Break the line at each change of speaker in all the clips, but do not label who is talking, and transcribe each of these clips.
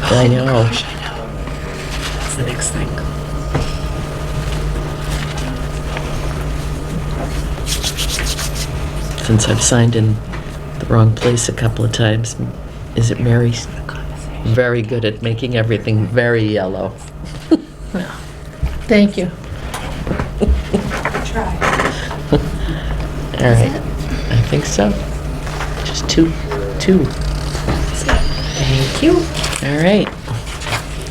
I know.
Oh Gosh, I know. That's the next thing.
Since I've signed in the wrong place a couple of times, is it Mary's?
The conversation.
Very good at making everything very yellow.
Thank you.
All right. I think so. Just two, two.
Thank you.
All right.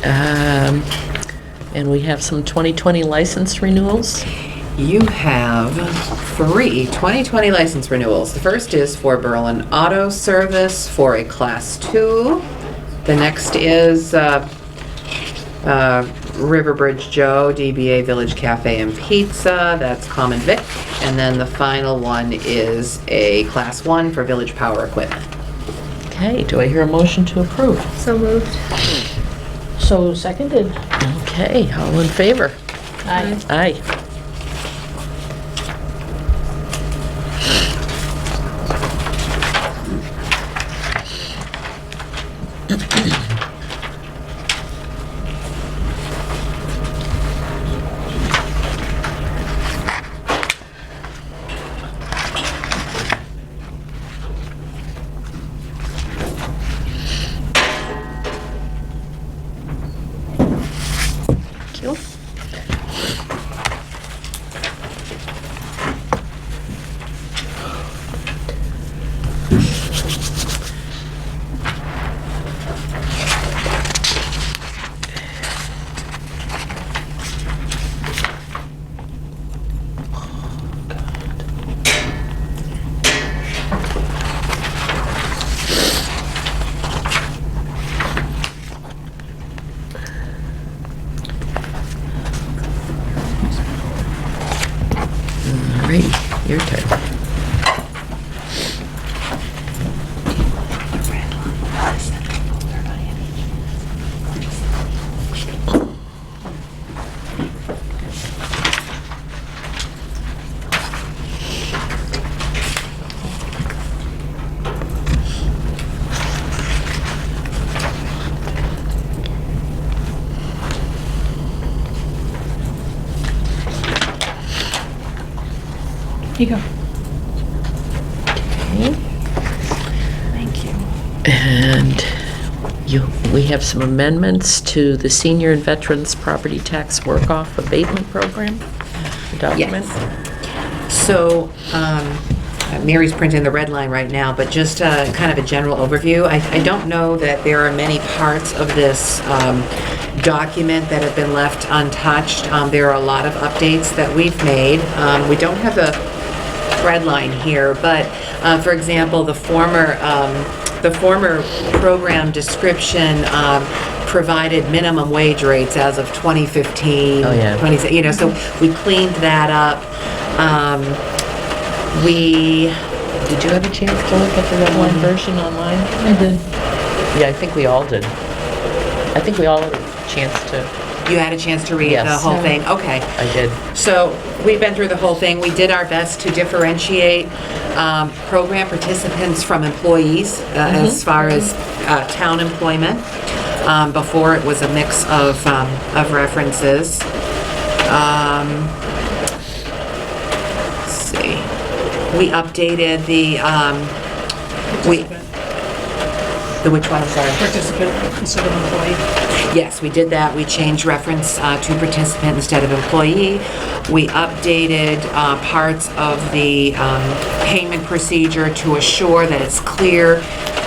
Um, And we have some 2020 license renewals.
You have three 2020 license renewals. The first is for Berlin Auto Service for a Class 2. The next is uh, uh, Riverbridge Joe, DBA Village Cafe and Pizza, that's Common Vic. And then the final one is a Class 1 for Village Power Equipment.
Okay, do I hear a motion to approve?
So moved. So seconded.
Okay, all in favor?
Aye.
Aye. Thank you. All right, your turn.
You go.
Thank you. And you, we have some amendments to the Senior and Veterans Property Tax Work-Off Abatement Program document.
So, um, Mary's printing the red line right now, but just uh, kind of a general overview. I I don't know that there are many parts of this um, document that have been left untouched. Um, There are a lot of updates that we've made. Um, We don't have a red line here, but, uh, for example, the former, um, the former program description um, provided minimum wage rates as of 2015.
Oh, yeah.
20 You know, so we cleaned that up. Um, We,
Did you have a chance to look at the red line version online?
Mm. I did.
Yeah, I think we all did. I think we all had a chance to,
you had a chance to read the
Yes.
whole thing? Okay.
I did.
So we've been through the whole thing. We did our best to differentiate um, program participants from employees uh, as far as uh, town employment. Um, Before, it was a mix of um, of references. Um, Let's see. We updated the, um, we, the which one, I'm sorry?
participant instead of employee.
Yes, we did that. We changed reference uh, to participant instead of employee. We updated uh, parts of the um, payment procedure to assure that it's clear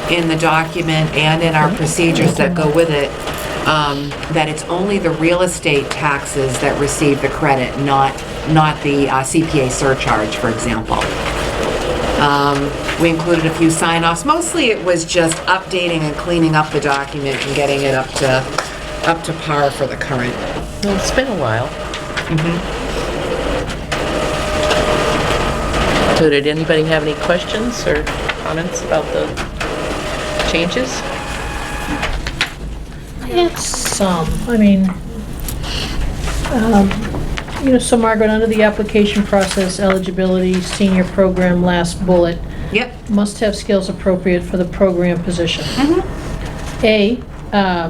in the document and in our procedures that go with it, um, that it's only the real estate taxes that receive the credit, not, not the uh, CPA surcharge, for example. Um, We included a few sign-offs. Mostly it was just updating and cleaning up the document and getting it up to, up to par for the current.
Well, it's been a while.
Mm-hmm.
So did anybody have any questions or comments about the changes?
It's some, I mean, um, you know, so Margaret, under the application process eligibility, senior program, last bullet,
Yep.
must have skills appropriate for the program position. A, um,